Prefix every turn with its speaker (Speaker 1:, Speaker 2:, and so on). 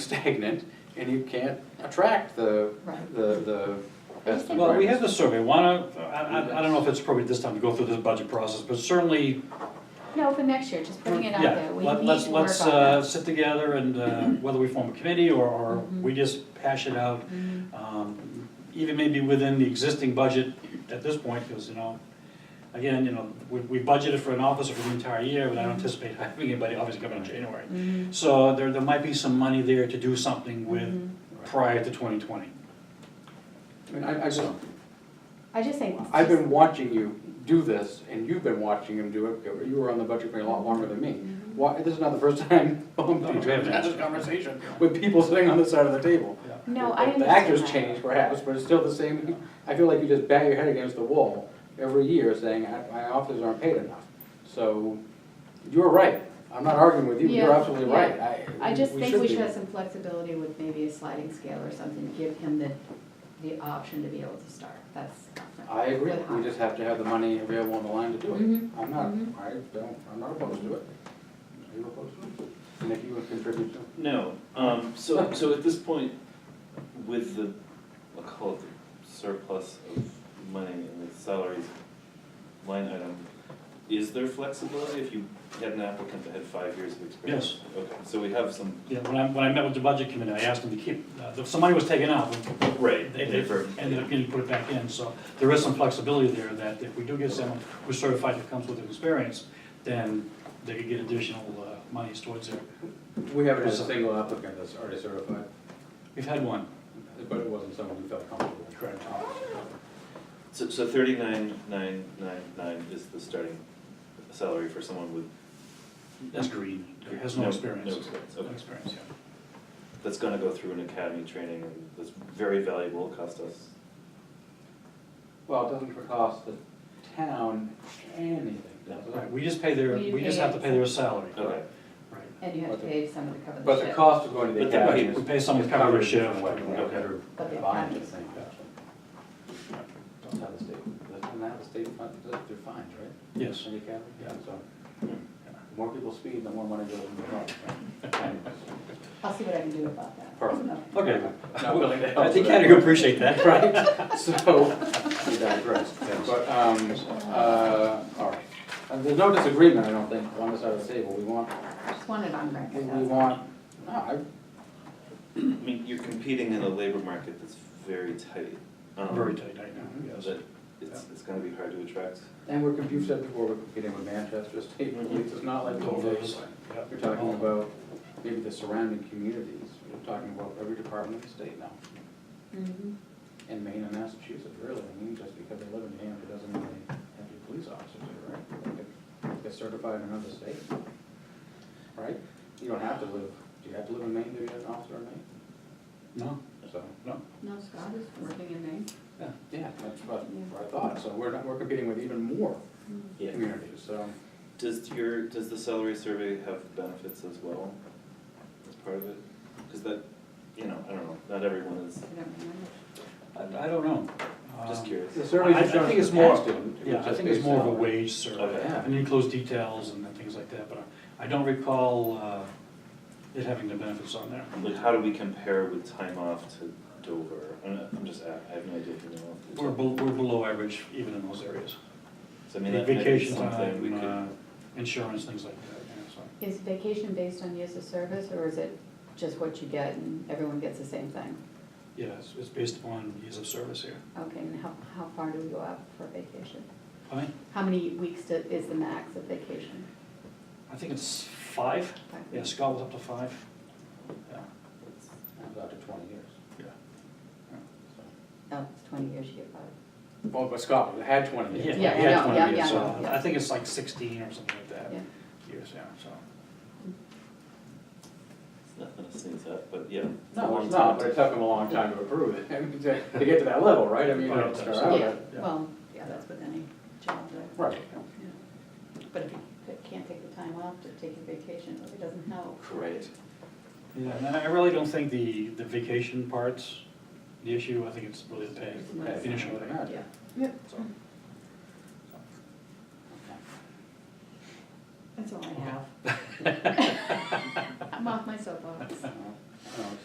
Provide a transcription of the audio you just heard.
Speaker 1: stagnant and you can't attract the,
Speaker 2: Right.
Speaker 1: the, the best and
Speaker 3: Well, we have
Speaker 1: brightest.
Speaker 3: the survey, why not, I, I, I don't know if it's appropriate this time to go through this budget process, but certainly,
Speaker 2: No, for next year, just putting it out
Speaker 3: yeah,
Speaker 2: there, we need to work
Speaker 3: let-
Speaker 2: on
Speaker 3: let's,
Speaker 2: that.
Speaker 3: let's, uh, sit together and, uh, whether we form a committee or, or
Speaker 2: Mm-hmm.
Speaker 3: we just hash it out. Um, even maybe within the existing budget at this point, because, you know, again, you know, we, we budgeted for an officer for the entire year, but I
Speaker 2: Mm-hmm.
Speaker 3: don't anticipate having anybody obviously coming in January. So there, there might be some money there to do something with
Speaker 2: Mm-hmm.
Speaker 3: prior to twenty twenty,
Speaker 1: I mean, I, I just,
Speaker 3: so.
Speaker 2: I just think.
Speaker 1: I've been watching you do this and you've been watching him do it, you were on the budget committee a lot longer than me.
Speaker 2: Mm-hmm.
Speaker 1: Why, this is not the first time I'm
Speaker 3: No, no,
Speaker 1: having
Speaker 3: that's-
Speaker 1: this conversation with people sitting on this side of the table.
Speaker 3: Yeah.
Speaker 2: No, I understand
Speaker 1: The actors
Speaker 2: that.
Speaker 1: change perhaps, but it's still the same, I feel like you just bat your head against the wall every year saying, "I- my officers aren't paid enough. So, you're right, I'm not arguing with you, you're
Speaker 2: Yeah,
Speaker 1: absolutely
Speaker 2: yeah.
Speaker 1: right.
Speaker 2: I just think
Speaker 1: should
Speaker 2: we
Speaker 1: be.
Speaker 2: should have some flexibility with maybe a sliding scale or something, to give him the, the option to be able to start, that's.
Speaker 1: I agree, we just have to have the money available on the line to do
Speaker 2: Mhm.
Speaker 1: it. I'm not,
Speaker 2: Mhm.
Speaker 1: I don't, I'm not opposed to it. Are you opposed to it? And if you would contribute to it?
Speaker 4: No, um, so, so at this point, with the, I'll call it the surplus of money in the salaries line item, is there flexibility if you had an applicant that had five years of experience? Yes. Okay, so we have some,
Speaker 3: Yeah, when I, when I met with the budget committee, I asked them to keep, uh, the- some money was taken out, but
Speaker 4: right,
Speaker 3: they, they ended up getting put it back in, so there is some flexibility there that if we do get someone who's certified that comes with experience, then they could get additional, uh, monies towards their,
Speaker 1: We have
Speaker 3: a
Speaker 1: single applicant that's already certified,
Speaker 3: we've had one.
Speaker 1: but it wasn't someone who felt comfortable.
Speaker 3: Correct.
Speaker 4: So, so thirty-nine, nine, nine, nine is the starting salary for someone with.
Speaker 3: That's green, has no experience.
Speaker 4: No experience,
Speaker 3: No
Speaker 4: okay.
Speaker 3: experience, yeah.
Speaker 4: That's gonna go through an academy training and that's very valuable, cost us
Speaker 1: Well, it doesn't cost the town anything, does
Speaker 3: Right,
Speaker 1: it?
Speaker 3: we just pay their,
Speaker 2: We
Speaker 3: we just have to pay their salary.
Speaker 4: Okay,
Speaker 3: Right.
Speaker 2: And you have to pay someone to cover the
Speaker 1: But the
Speaker 2: shift.
Speaker 1: cost of going to the
Speaker 4: But the-
Speaker 1: academy is.
Speaker 3: We pay someone
Speaker 1: is
Speaker 3: to cover their
Speaker 1: covered in
Speaker 3: shift.
Speaker 1: different ways.
Speaker 4: Okay.
Speaker 1: Better
Speaker 2: But the
Speaker 1: combined, I
Speaker 2: academy-
Speaker 1: think, actually. Don't have the state, doesn't have the state fund, they're fines, right?
Speaker 3: Yes.
Speaker 1: Any academy? Yeah, so, the more people speed, the more money goes in the fund, right?
Speaker 2: I'll see what I can do about that.
Speaker 1: Perfect.
Speaker 2: Okay.
Speaker 3: Okay.
Speaker 1: Not willing to help
Speaker 3: I
Speaker 1: with
Speaker 3: think
Speaker 1: Oh, that.
Speaker 3: Henry appreciate that.
Speaker 1: Right, so, we digress, but, um, uh, all right. And there's no disagreement, I don't think, on this side of the table, we want,
Speaker 2: I Just wanted on
Speaker 1: we
Speaker 2: record,
Speaker 1: we
Speaker 2: that's.
Speaker 1: want, no, I,
Speaker 4: I mean, you're competing in a labor market that's very tight. um,
Speaker 3: Very tight right now, yes.
Speaker 4: That it's, it's gonna be hard to attract.
Speaker 1: and we're, comp- you've said before, we're competing with Manchester State Police, it's not like the old days.
Speaker 3: Yeah.
Speaker 1: We're talking about maybe the surrounding communities, we're talking about every department in the state now,
Speaker 2: Mhm.
Speaker 1: in Maine and Massachusetts, really, I mean, just because they live in Hampton doesn't mean they have to be police officers, right? They could Get certified in another state, right? You don't have to live, do you have to live in Maine to be an officer in Maine?
Speaker 3: No,
Speaker 1: So,
Speaker 3: no,
Speaker 2: No, Scott is working in Maine.
Speaker 3: yeah.
Speaker 1: yeah, that's what what I thought, so we're not, we're competing with even more
Speaker 2: Mm-hmm.
Speaker 1: communities, so.
Speaker 4: Does your, does the salary survey have benefits as well as part of it? Cause that, you know, I don't know, not everyone is,
Speaker 2: I don't remember.
Speaker 3: I, I don't know.
Speaker 4: just
Speaker 3: Um,
Speaker 4: curious.
Speaker 1: The
Speaker 3: I
Speaker 1: surveys
Speaker 3: I
Speaker 1: have shown
Speaker 3: think it's
Speaker 1: it's
Speaker 3: more,
Speaker 1: past student, it
Speaker 3: yeah,
Speaker 1: was
Speaker 3: I
Speaker 1: just
Speaker 3: think it's
Speaker 1: based
Speaker 3: more of a
Speaker 1: on-
Speaker 3: wage survey,
Speaker 4: Okay.
Speaker 1: Yeah.
Speaker 3: and it includes details and then things like that, but I I don't recall uh, it having the benefits on there.
Speaker 4: Like, how do we compare with time off to Dover? I'm, not- I'm just, a- I have no idea if you know. off the
Speaker 3: We're,
Speaker 4: top.
Speaker 3: bel- we're below average even in those areas.
Speaker 4: So I mean, that might be
Speaker 3: Vacation
Speaker 4: something we
Speaker 3: time, uh,
Speaker 4: could,
Speaker 3: insurance, things like that, yeah, so.
Speaker 2: Is vacation based on years of service, or is it just what you get and everyone gets the same thing?
Speaker 3: Yeah, it's, it's based upon years of service here.
Speaker 2: Okay, and how, how far do we go out for vacation?
Speaker 3: I mean,
Speaker 2: How many weeks do- is the max of vacation?
Speaker 3: I think it's five,
Speaker 2: Five
Speaker 3: yeah,
Speaker 2: weeks.
Speaker 3: Scott was up to five. Yeah,
Speaker 1: It was up to twenty years,
Speaker 3: yeah.
Speaker 1: so.
Speaker 2: No, Oh, it's twenty years you get five.
Speaker 1: Well, but Scott had twenty years.
Speaker 3: Yeah,
Speaker 2: Yeah,
Speaker 3: he
Speaker 2: I know,
Speaker 3: had
Speaker 2: yeah,
Speaker 3: twenty years,
Speaker 2: yeah,
Speaker 3: so
Speaker 2: yeah.
Speaker 3: I think it's like sixteen or something like that,
Speaker 2: Yeah.
Speaker 3: years, yeah, so.
Speaker 4: it's nothing to sneeze at, but yeah. it's a
Speaker 1: No,
Speaker 4: long
Speaker 1: it's not,
Speaker 4: time
Speaker 1: but
Speaker 4: to-
Speaker 1: it took them a long time to approve it, I mean, to, to get to that level, right? I mean, you don't start out
Speaker 2: Oh, Yeah,
Speaker 1: at-
Speaker 3: yeah.
Speaker 2: well, yeah, that's with any job, right?
Speaker 1: right.
Speaker 2: Yeah. But if you c- can't take the time off to take your vacation, it really doesn't help.
Speaker 1: Oh, Great.
Speaker 3: Yeah, and I really don't think the, the vacation part's the issue, I think it's really the pay,
Speaker 2: It's nice.
Speaker 3: initial pay,
Speaker 1: Yeah.
Speaker 2: Yeah.
Speaker 3: so.
Speaker 2: That's all I have. I'm off my soapbox.
Speaker 1: Okay. No, no,